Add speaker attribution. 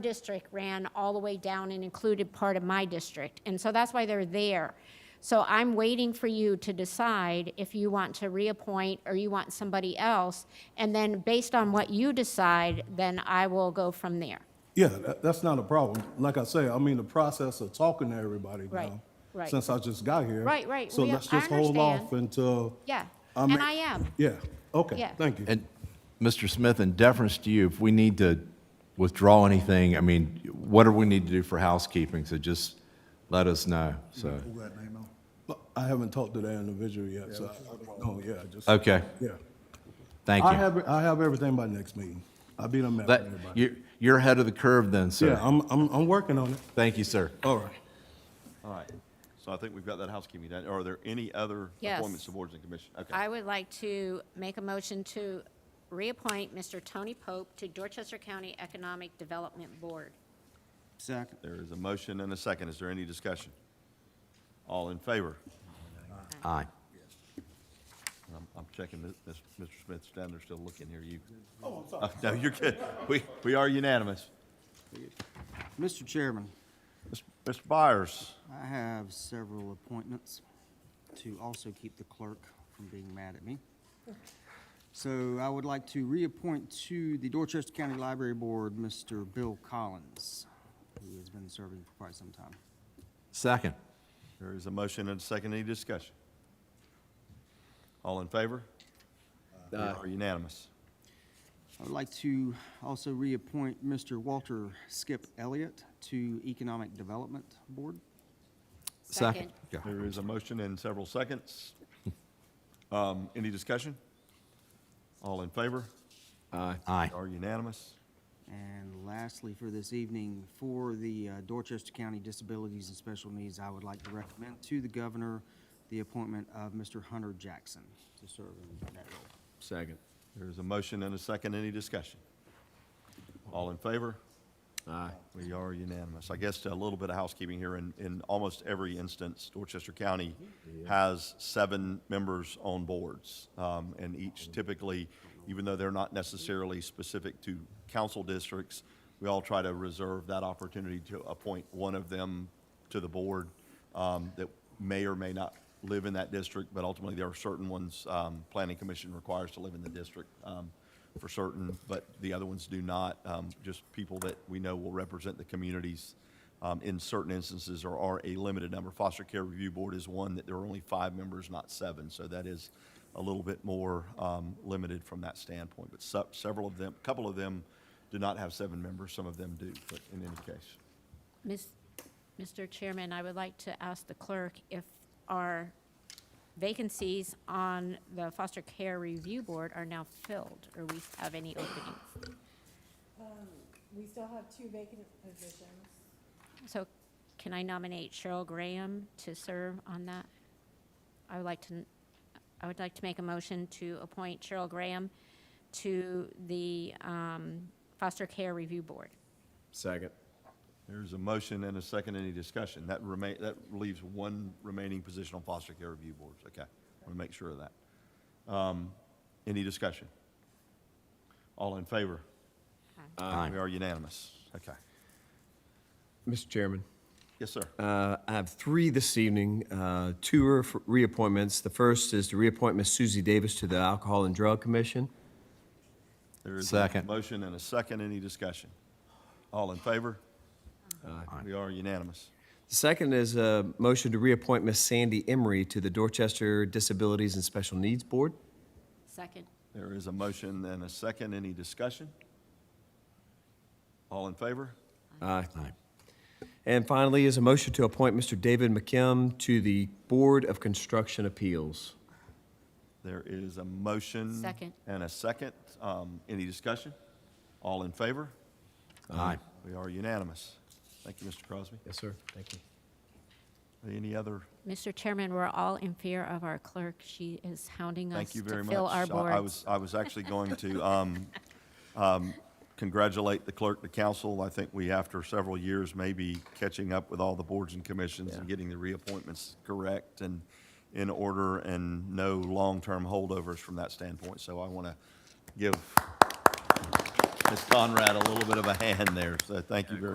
Speaker 1: district ran all the way down and included part of my district, and so that's why they're there. So I'm waiting for you to decide if you want to reappoint or you want somebody else, and then based on what you decide, then I will go from there.
Speaker 2: Yeah, that, that's not a problem. Like I say, I mean, the process of talking to everybody
Speaker 1: Right,
Speaker 2: now,
Speaker 1: right.
Speaker 2: since I just got here.
Speaker 1: Right, right.
Speaker 2: So
Speaker 1: We-
Speaker 2: let's
Speaker 1: I
Speaker 2: just hold off
Speaker 1: understand.
Speaker 2: until.
Speaker 1: Yeah,
Speaker 2: I
Speaker 1: and
Speaker 2: mean-
Speaker 1: I am.
Speaker 2: Yeah, okay,
Speaker 1: Yeah.
Speaker 2: thank you.
Speaker 3: And, Mr. Smith, in deference to you, if we need to withdraw anything, I mean, what do we need to do for housekeeping? So just let us know, so.
Speaker 2: But I haven't talked to that individual yet, so, I- no, yeah, I just,
Speaker 3: Okay,
Speaker 2: yeah.
Speaker 3: thank
Speaker 2: I
Speaker 3: you.
Speaker 2: have, I have everything by next meeting. I'll be done
Speaker 3: That,
Speaker 2: mapping everybody.
Speaker 3: you're, you're ahead of the curve then,
Speaker 2: Yeah,
Speaker 3: sir.
Speaker 2: I'm, I'm, I'm working on it.
Speaker 3: Thank you, sir.
Speaker 2: All right.
Speaker 4: All right, so I think we've got that housekeeping done. Are there any other
Speaker 1: Yes.
Speaker 4: appointments to boards and commissions? Okay,
Speaker 1: I would like to make a motion to reappoint Mr. Tony Pope to Dorchester County Economic Development Board.
Speaker 5: Second.
Speaker 4: there is a motion and a second. Is there any discussion? All in favor?
Speaker 3: Aye.
Speaker 4: I'm, I'm checking, this- this- Mr. Smith's down there still looking here, you. Oh, I'm sorry. No, you're good. We, we are unanimous.
Speaker 5: Mr. Chairman,
Speaker 4: Mis- Mr. Byers,
Speaker 5: I have several appointments to also keep the clerk from being mad at me. So I would like to reappoint to the Dorchester County Library Board, Mr. Bill Collins, who has been serving for quite some time.
Speaker 3: Second.
Speaker 4: there is a motion and a second. Any discussion? All in favor? We are unanimous.
Speaker 5: I would like to also reappoint Mr. Walter Skip Elliott to Economic Development Board.
Speaker 3: Second.
Speaker 4: There is a motion and several seconds. Um, Any discussion? All in favor?
Speaker 3: Aye. Aye.
Speaker 4: We Are unanimous?
Speaker 5: And lastly, for this evening, for the uh, Dorchester County Disabilities and Special Needs, I would like to recommend to the governor the appointment of Mr. Hunter Jackson to serve in that role.
Speaker 6: Second.
Speaker 4: There is a motion and a second. Any discussion? All in favor?
Speaker 6: Aye.
Speaker 4: We are unanimous. I guess uh, a little bit of housekeeping here. In, in almost every instance, Dorchester County has seven members on boards. Um, and each typically, even though they're not necessarily specific to council districts, we all try to reserve that opportunity to appoint one of them to the board, um, that may or may not live in that district, but ultimately there are certain ones, um, planning commission requires to live in the district. Um, for certain, but the other ones do not. Um, Just people that we know will represent the communities um, in certain instances or are a limited number. Foster Care Review Board is one that there are only five members, not seven, so that is a little bit more um, limited from that standpoint. But se- several of them, a couple of them do not have seven members, some of them do, but in any case.
Speaker 1: Miss, Mr. Chairman, I would like to ask the clerk if our vacancies on the Foster Care Review Board are now filled, or we have any openings.
Speaker 7: We still have two vacant positions.
Speaker 1: So can I nominate Cheryl Graham to serve on that? I would like to, I would like to make a motion to appoint Cheryl Graham to the um, Foster Care Review Board.
Speaker 6: Second.
Speaker 4: There's a motion and a second, any discussion? That remain, that leaves one remaining position on foster care review boards, okay? I want to make sure of that. Um, Any discussion? All in favor?
Speaker 3: Aye.
Speaker 4: We are unanimous, okay.
Speaker 6: Mr. Chairman,
Speaker 4: Yes, sir.
Speaker 6: uh, I have three this evening, uh, two are for reappointments. The first is to reappoint Ms. Susie Davis to the Alcohol and Drug Commission.
Speaker 4: There is a
Speaker 3: Second.
Speaker 4: Motion and a second, any discussion? All in favor? We are unanimous.
Speaker 6: The second is a motion to reappoint Ms. Sandy Emery to the Dorchester Disabilities and Special Needs Board.
Speaker 1: Second.
Speaker 4: There is a motion and a second, any discussion? All in favor?
Speaker 6: Aye.
Speaker 3: Aye.
Speaker 6: Uh, And finally is a motion to appoint Mr. David McKim to the Board of Construction Appeals.
Speaker 4: There is a motion.
Speaker 1: Second.
Speaker 4: And a second. Um, Any discussion? All in favor?
Speaker 3: Aye.
Speaker 4: We are unanimous. Thank you, Mr. Crosby.
Speaker 6: Yes, sir. Thank you.
Speaker 4: Any other?
Speaker 1: Mr. Chairman, we're all in fear of our clerk. She is hounding us
Speaker 4: Thank you
Speaker 1: to
Speaker 4: very much.
Speaker 1: fill our
Speaker 4: I- I
Speaker 1: boards.
Speaker 4: was, I was actually going to um, um, congratulate the clerk, the council. I think we, after several years, may be catching up with all the boards and commissions and getting the reappointments correct and in order and no long-term holdovers from that standpoint. So I want to give Ms. Conrad a little bit of a hand there, so thank you very